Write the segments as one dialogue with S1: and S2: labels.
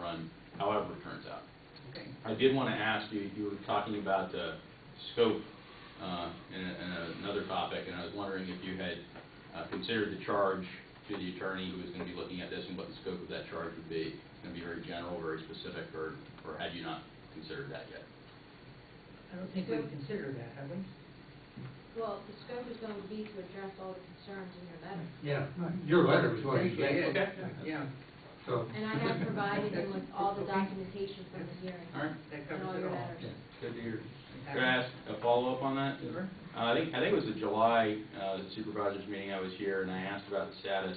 S1: done, however it turns out.
S2: Okay.
S1: I did want to ask you, you were talking about uh, scope uh, in a- in another topic, and I was wondering if you had uh, considered the charge to the attorney who was going to be looking at this and what the scope of that charge would be. It's going to be very general, very specific, or or had you not considered that yet?
S2: I don't think we've considered that, have we?
S3: Well, the scope is going to be to address all the concerns in your letter.
S4: Yeah, your letter was what you
S2: Thank you,
S4: said,
S2: yeah,
S1: Okay.
S2: Yeah,
S4: so.
S3: And I have provided you with all the documentation from the hearing.
S1: All right,
S2: that
S3: And all
S2: covers it
S3: your
S2: all.
S3: letters.
S1: good to hear. Could I ask a follow-up on that?
S2: Sure.
S1: Uh, I think, I think it was the July uh, supervisors meeting I was here, and I asked about the status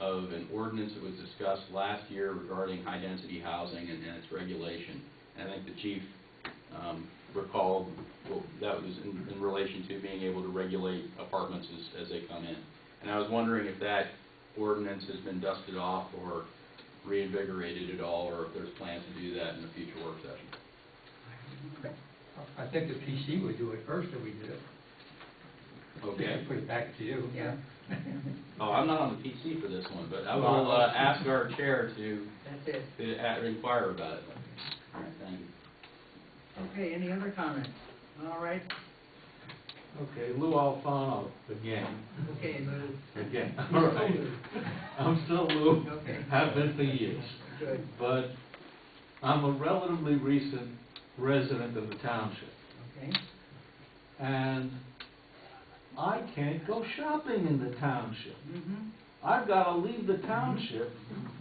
S1: of an ordinance that was discussed last year regarding high-density housing and and its regulation. And I think the chief um, recalled, well, that was in in relation to being able to regulate apartments as, as they come in. And I was wondering if that ordinance has been dusted off or reinvigorated at all, or if there's plans to do that in a future work session.
S4: I think the PC would do it first if we did it.
S1: Okay?
S4: Put it back to you.
S2: Yeah.
S1: Oh, I'm not on the PC for this one, but I will uh, ask our chair to,
S2: That's it.
S1: to a- inquire about it. All right, thank you.
S2: Okay, any other comments? All right,
S5: Okay, Lou Alfano again,
S2: okay, Lou.
S5: again, all right. I'm still Lou,
S2: Okay.
S5: have been for years,
S2: Good,
S5: but I'm a relatively recent resident of the township.
S2: okay.
S5: And I can't go shopping in the township.
S2: Mhm.
S5: I've gotta leave the township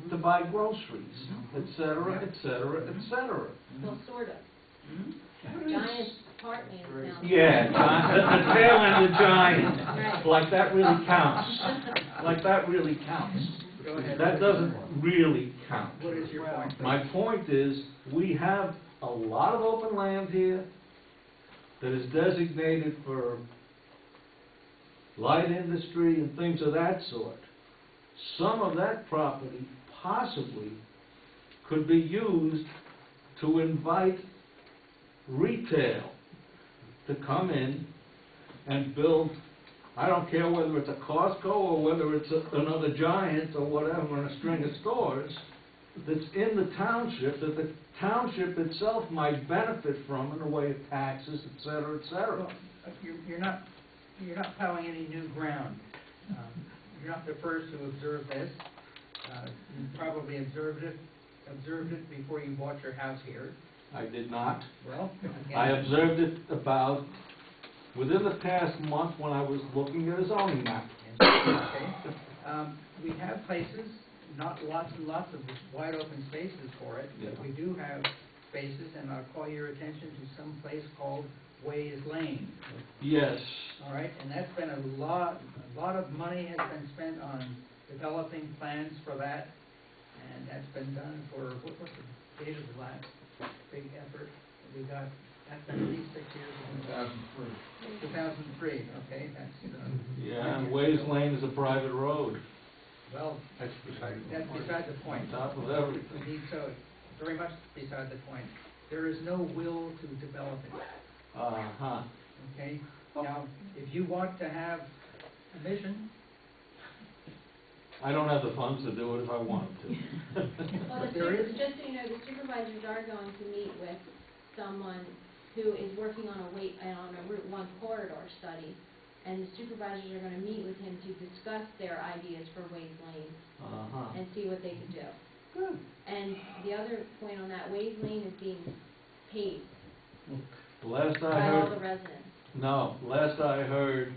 S5: to buy groceries, et cetera, et cetera, et cetera.
S3: Well, sort of.
S2: Mhm.
S3: Giant apartment now.
S5: Yeah, Gi- the tail end of
S3: Right.
S5: Giant, like that really counts, like that really counts.
S2: Go ahead.
S5: That doesn't really count.
S2: What is your point? please?
S5: My point is, we have a lot of open land here that is designated for light industry and things of that sort. Some of that property possibly could be used to invite retail to come in and build, I don't care whether it's a Costco or whether it's a- another Giant or whatever, and a string of stores that's in the township, that the township itself might benefit from in the way of taxes, et cetera, et cetera.
S2: You're, you're not, you're not plowing any new ground. Um, You're not the first to observe this. Uh, You probably observed it, observed it before you bought your house here.
S5: I did not.
S2: Well,
S5: I
S2: again,
S5: observed it about, within the past month when I was looking at a zoning map.
S2: okay. Um, We have places, not lots and lots of wide open spaces for it, but
S5: Yeah.
S2: we do have spaces, and I'll call your attention to some place called Ways Lane.
S5: Yes,
S2: All right, and that's been a lot, a lot of money has been spent on developing plans for that, and that's been done for, what was the date of the last big effort? We got, that's been at least six years ago. Two thousand three, okay, that's, uh,
S5: yeah, and Ways Lane is a private road,
S2: well,
S4: That's beside the
S2: that's
S4: point.
S2: beside the point.
S5: on top of everything.
S2: Indeed, so, very much beside the point. There is no will to develop it.
S5: Uh-huh.
S2: Okay, now, if you want to have a mission,
S5: I don't have the funds to do it if I wanted to.
S3: Well, the
S2: There
S3: super-
S2: is-
S3: just so you know, the supervisors are going to meet with someone who is working on a wait, uh, on a Route One corridor study, and the supervisors are going to meet with him to discuss their ideas for Ways Lane
S5: Uh-huh.
S3: and see what they can do.
S5: Good.
S3: And the other point on that, Ways Lane is being paved
S5: Last I
S3: by
S5: heard,
S3: all the residents.
S5: No, last I heard,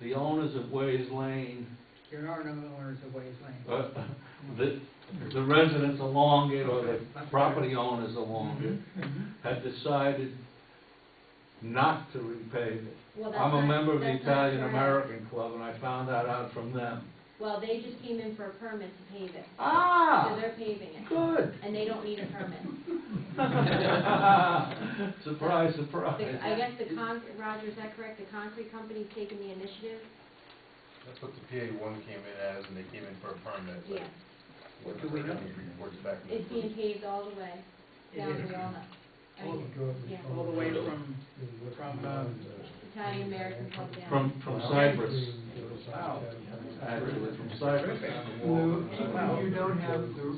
S5: the owners of Ways Lane,
S2: there are no owners of Ways Lane.
S5: uh, the, the residents along it or the property owners along
S2: Mhm,
S5: it
S2: mhm.
S5: had decided not to repave it.
S3: Well, that's
S5: I'm a
S3: not-
S5: member of the
S3: that's not
S5: Italian
S3: correct.
S5: American Club and I found that out from them.
S3: Well, they just came in for a permit to pave it, so
S5: Ah,
S3: they're paving it,
S5: good.
S3: and they don't need a permit.
S5: Surprise, surprise.
S3: The- I guess the con, Roger, is that correct? The concrete company's taking the initiative?
S6: That's what the PA one came in as, and they came in for a permit, but
S3: Yeah,
S6: what
S2: Do we know?
S6: reports back. to the
S3: it's being paved all the way down to Walnut. I mean, yeah,
S2: All the way from, from, uh,
S3: Italian American Club down.
S5: From, from Cyprus,
S2: wow.
S5: actually, from Cyprus.
S4: Lou,
S5: Wow.
S4: you don't have the